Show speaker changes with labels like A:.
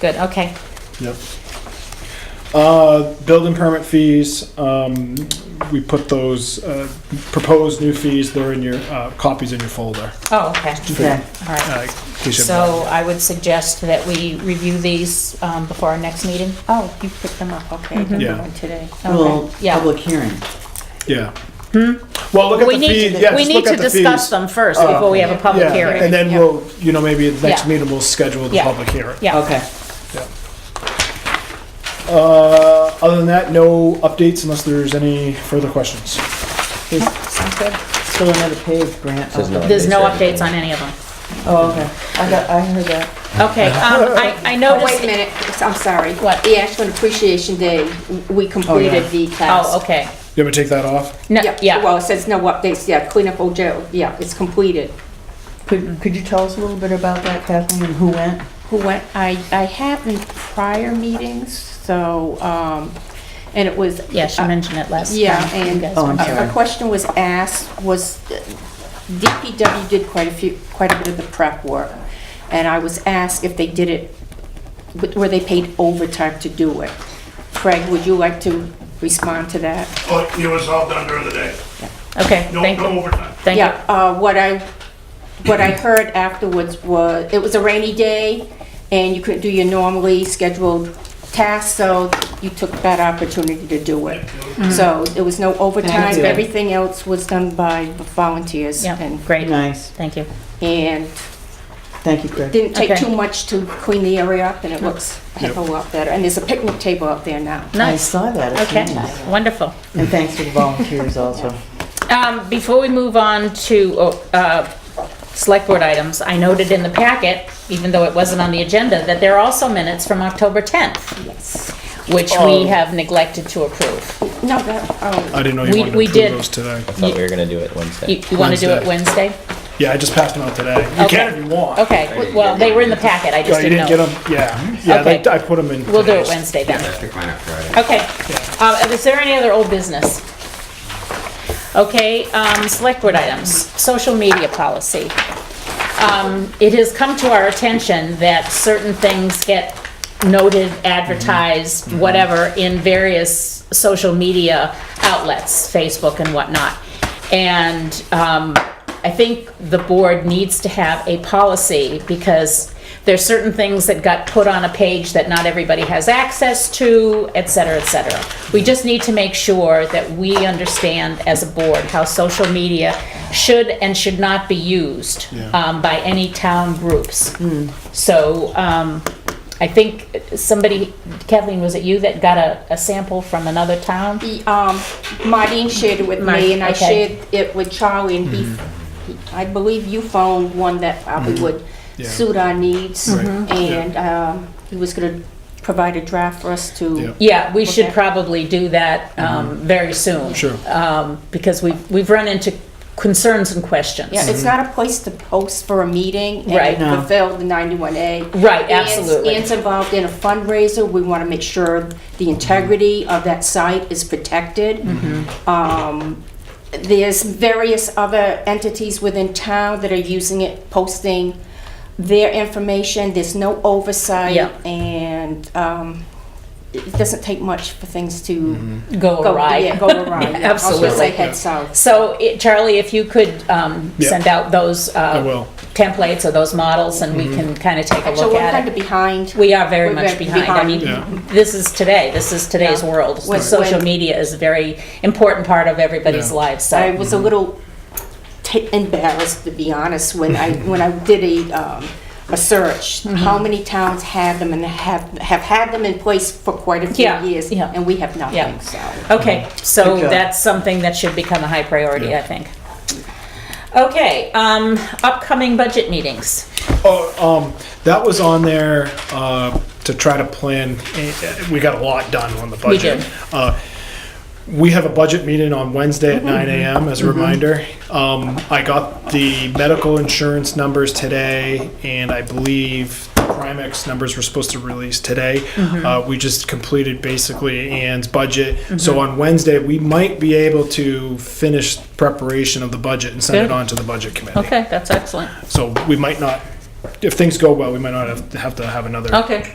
A: Good, okay.
B: Yep. Uh, building permit fees, um, we put those, uh, proposed new fees, they're in your, uh, copies in your folder.
A: Oh, okay,
C: Okay.
A: all right.
B: Uh, in case you have-
A: So I would suggest that we review these um, before our next meeting.
D: Oh, you picked them up, okay. I didn't
B: Yeah.
D: know Today.
C: Well,
A: Okay, yeah.
C: public hearing.
B: Yeah. Well, look at
A: We
B: the
A: need,
B: fees,
A: to-
B: yeah,
A: we
B: just
A: need
B: look
A: to
B: at the
A: discuss
B: fees. Uh,
A: them first before we have a public
B: Yeah,
A: hearing.
B: and then we'll, you know, maybe at the next
A: Yeah.
B: meeting, we'll schedule the
A: Yeah.
B: public hearing.
A: Yeah,
C: Okay.
B: Uh, other than that, no updates unless there's any further questions.
C: There's
A: sounds good.
C: still another page, Grant.
E: Says no.
A: There's no
E: Updates,
A: updates
E: yeah.
A: on any of them.
C: Oh, okay. I got, I heard that.
A: Okay, um, I,
F: Oh,
A: I
F: wait a
A: noticed,
F: minute, I'm sorry.
A: What?
F: The Ashland Appreciation Day, we completed the task.
A: oh, okay.
B: You want me to take that off?
A: No,
F: Well,
A: yeah,
F: it says no updates, yeah, cleanup old jail, yeah, it's completed.
C: Could, could you tell us a little bit about that, Kathleen, and who went?
D: Who went, I, I have in prior meetings, so, um, and it was. uh,
A: yeah, she mentioned it last time.
D: Yeah,
A: You
D: and
A: guys
C: Oh, I'm
A: mentioned
C: sorry.
D: a a question was asked, was, uh, DPW did quite a few, quite a bit of the prep work, and I was asked if they did it, were they paid overtime to do it? Craig, would you like to respond to that?
G: But it was all done during the day.
A: it. Okay,
G: No
A: thank
G: no
A: you,
G: overtime.
A: thank you.
D: Yeah, uh, what I, what I heard afterwards was, it was a rainy day, and you couldn't do your normally scheduled tasks, so you took that opportunity to do it.
A: Mm-hmm.
D: So it was no overtime,
C: Thank you.
D: everything else was done by volunteers.
A: Yeah,
D: and-
A: great,
C: Nice.
A: thank you.
D: And
C: Thank you, Craig.
D: didn't take
A: Okay.
D: too much to clean the area up, and it looks a heck of a lot better. And there's a picnic table up there now.
C: I
A: Nice,
C: saw that. It's
A: okay,
C: nice.
A: wonderful.
C: And thanks to the volunteers also.
A: Um, before we move on to, uh, select board items, I noted in the packet, even though it wasn't on the agenda, that there are also minutes from October 10th. Which we
B: Oh.
A: have neglected to approve.
D: No, that, oh,
B: I didn't know you
A: We-
B: wanted to
A: we
B: approve
A: did.
B: those today.
E: I thought we were gonna do it Wednesday.
A: You, you wanna do it Wednesday?
B: Yeah, I just passed them out today. You
A: Okay.
B: can if you want.
A: Okay, well, they were in the packet, I
B: Oh,
A: just
B: you
A: didn't
B: didn't
A: know.
B: get them? Yeah, yeah, they-
A: Okay.
B: I put them in.
A: We'll do it
B: today's.
A: Wednesday then.
E: Pick mine up Friday.
A: Okay. Uh, is there any other old business? Okay, um, select board items, social media policy. Um, it has come to our attention that certain things get noted, advertised, whatever, in various social media outlets, Facebook and whatnot. And, um, I think the board needs to have a policy because there's certain things that got put on a page that not everybody has access to, et cetera, et cetera. We just need to make sure that we understand as a board how social media should and should not be used um, by any town groups.
B: Hmm.
A: So um, I think somebody, Kathleen, was it you that got a, a sample from another town?
D: the, um, Martine shared it with
A: Martine,
D: me, and I
A: okay.
D: shared it with Charlie, and he, he- I believe you found one that probably would
B: Mm-hmm. Yeah.
D: suit our needs.
B: Right.
D: And, um, he was gonna provide a draft for us
B: Yeah.
D: to,
A: Yeah, we should
D: Okay.
A: probably do that um, very soon.
B: Mm-hmm. Sure.
A: Um, Because we've, we've run into concerns and questions.
D: yeah, it's not a place to post for a meeting.
A: Right.
D: And
C: No.
D: fulfill the ninety-one A.
A: Right, absolutely.
D: Anne's involved in a fundraiser, we wanna make sure the integrity of that site is protected. Um, there's various other entities within town that are using it, posting their information. There's no oversight.
A: Yeah.
D: And um, it doesn't take much for things to.
A: Go awry.
D: Yeah, go awry. yeah. I was
A: Absolutely.
D: gonna say head south.
A: So it- Charlie, if you could um,
B: Yeah.
A: send out those
B: I
A: uh,
B: will. Mm-hmm.
A: templates or those models, and we can kind of take a
D: So
A: look
D: we're kind
A: at it.
D: of behind.
A: We are very
D: we're
A: much
D: very
A: behind. I
B: Yeah.
A: mean, this is today, this is today's
D: Yeah.
A: world.
D: When-
A: Social
D: when-
A: media is a very important part of everybody's
B: Yeah.
A: lives, so.
D: I was a little t- embarrassed, to be honest, when I, when I did a, um, a search,
A: Mm-hmm.
D: how many towns had them and have, have had them in place for quite a few
A: Yeah,
D: years,
A: yeah.
D: and we have
A: Yeah.
D: nothing, so.
A: Okay, so
C: Good job.
A: that's something that should become a high priority,
B: Yeah.
A: I think. Okay, um, upcoming budget meetings.
B: Oh, um, that was on there, uh, to try to plan, eh, we got a lot done on the budget.
A: did.
B: Uh, we have a budget meeting on Wednesday at nine AM as a reminder. Um, I got the medical insurance numbers today and I believe the Primex numbers were supposed to release today.
A: Mm-hmm.
B: Uh, we just completed basically Ann's budget.
A: Mm-hmm.
B: So on Wednesday, we might be able to finish preparation of the budget and send it
A: Good.
B: on to the budget committee.
A: Okay, that's excellent.
B: So we might not, if things go well, we might not have, have to have another
A: Okay.